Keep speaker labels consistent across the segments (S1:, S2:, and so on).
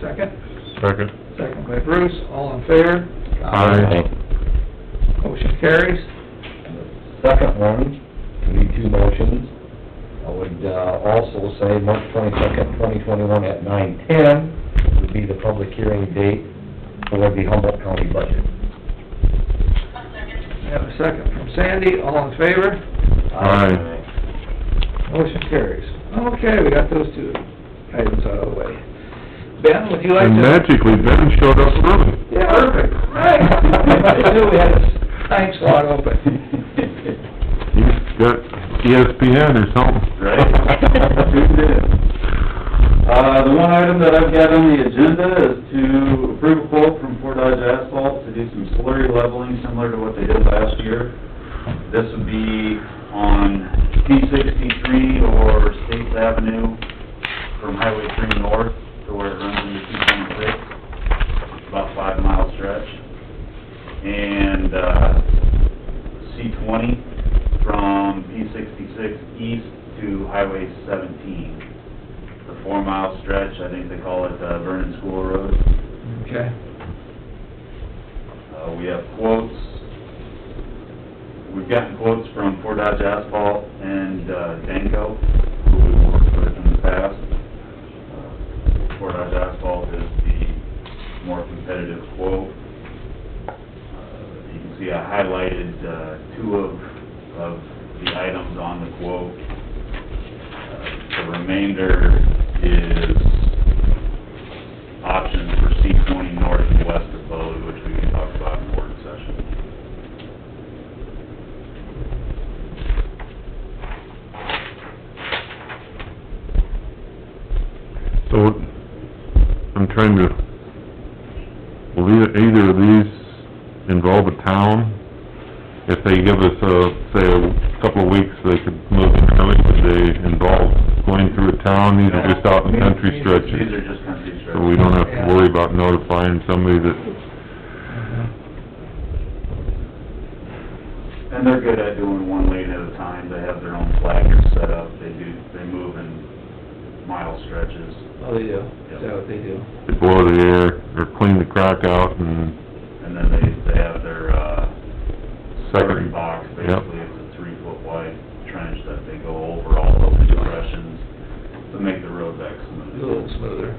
S1: second?
S2: Second.
S1: Second by Bruce, all in favor? Motion carries.
S3: And the second one, could be two motions. I would uh, also say March twenty-second, twenty twenty-one at nine ten would be the public hearing date for the Humboldt County budget.
S1: We have a second from Sandy, all in favor?
S2: Aye.
S1: Motion carries. Okay, we got those two items out of the way. Ben, would you like to?
S2: And magically, Ben showed up early.
S1: Yeah, perfect, right. I knew we had a time slot open.
S2: He's got E ESPN or something.
S4: Uh, the one item that I've got on the agenda is to approve a quote from Fort Dodge Asphalt to do some slurry leveling similar to what they did last year. This would be on P sixty-three or States Avenue from Highway three north to where it runs into two twenty-six, about five mile stretch. And, uh, C twenty from P sixty-six east to Highway seventeen. The four mile stretch, I think they call it uh, Vernon School Road.
S1: Okay.
S4: Uh, we have quotes. We've gotten quotes from Fort Dodge Asphalt and, uh, Danko, who we've worked with in the past. Uh, Fort Dodge Asphalt is the more competitive quote. Uh, You can see I highlighted, uh, two of, of the items on the quote. Uh, The remainder is options for C twenty north and west of Bode, which we can talk about in board session.
S2: So, I'm trying to, will either, either of these involve a town? If they give us a, say, a couple of weeks, they could move the county, would they involve going through a town? These are just out in the country
S4: These
S2: stretches,
S4: are just country
S2: so we
S4: stretches.
S2: don't have to worry about notifying somebody that,
S4: And they're good at doing one lane at a time. They have their own flaggers set up. They do, they move in mile stretches.
S1: Oh, they do, is that what they do?
S2: they blow the air, or clean the crack out and
S4: And then they, they have their, uh, slurry
S2: second.
S4: box,
S2: Yep.
S4: basically. It's a three foot wide trench that they go over all those depressions to make the road back
S1: A
S4: smooth.
S1: little smoother.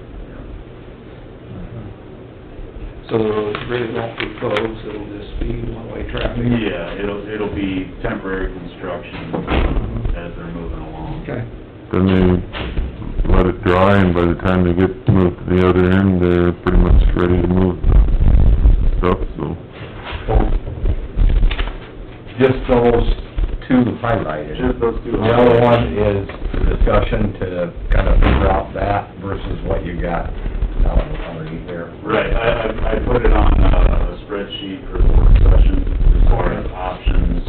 S1: So the roads really won't be closed, it'll just be one-way traffic?
S4: Yeah, it'll, it'll be temporary construction as they're moving along.
S1: Okay,
S2: Then they let it dry, and by the time they get moved to the other end, they're pretty much ready to move the stuff, so.
S3: Just those two highlighted.
S4: Just those two.
S3: The other one is the discussion to kind of figure out that versus what you got down underneath there.
S4: Right, I, I, I put it on uh, a spreadsheet for the work session, as far as options,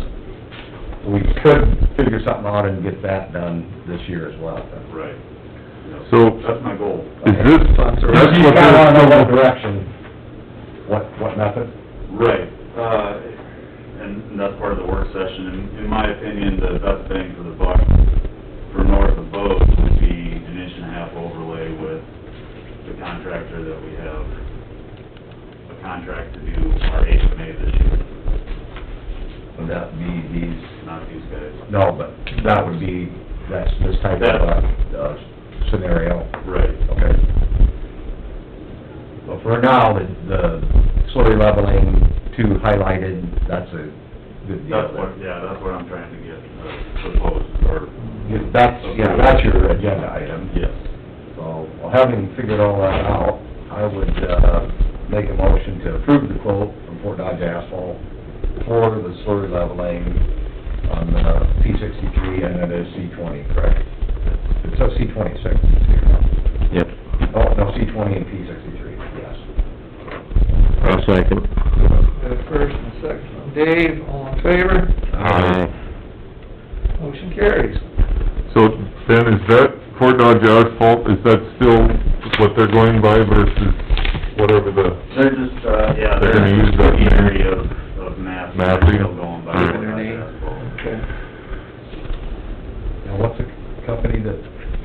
S3: We could figure something out and get that done this year as well.
S4: right.
S2: So-
S4: That's my goal.
S2: Is this, that's
S3: You
S2: what
S3: kinda wanna know what
S2: they're,
S3: direction, what, what method?
S4: Right, uh, and and that's part of the work session, in, in my opinion, the best bang for the buck for north of Bode would be an inch and a half overlay with the contractor that we have a contract to do our HMA this year,
S3: Would that be these,
S4: not these guys.
S3: no, but that would be, that's this type of, uh, uh, scenario.
S4: Right.
S3: Okay. But for now, the, the slurry leveling two highlighted, that's a good deal.
S4: That's what, yeah, that's what I'm trying to get uh, proposed, or,
S3: Yeah, That's, yeah, that's your agenda item.
S4: yes.
S3: So, well, having figured all that out, I would, uh, make a motion to approve the quote from Fort Dodge Asphalt for the slurry leveling on the P sixty-three and then the C twenty, correct? It's a C twenty-six.
S5: Yep,
S3: Oh, no, C twenty and P sixty-three, yes.
S5: I'll second.
S1: the first and second from Dave, all in favor?
S5: Aye.
S1: Motion carries.
S2: so Ben, is that Fort Dodge asphalt, is that still what they're going by versus whatever the,
S4: They're just, uh, yeah,
S2: They're
S4: they're
S2: gonna use
S4: in
S2: that
S4: the
S2: map.
S4: area of, of Mass, they're
S2: Mapping?
S4: still going by
S2: Right.
S4: what I asked for.
S1: Okay.
S3: Now, what's the company that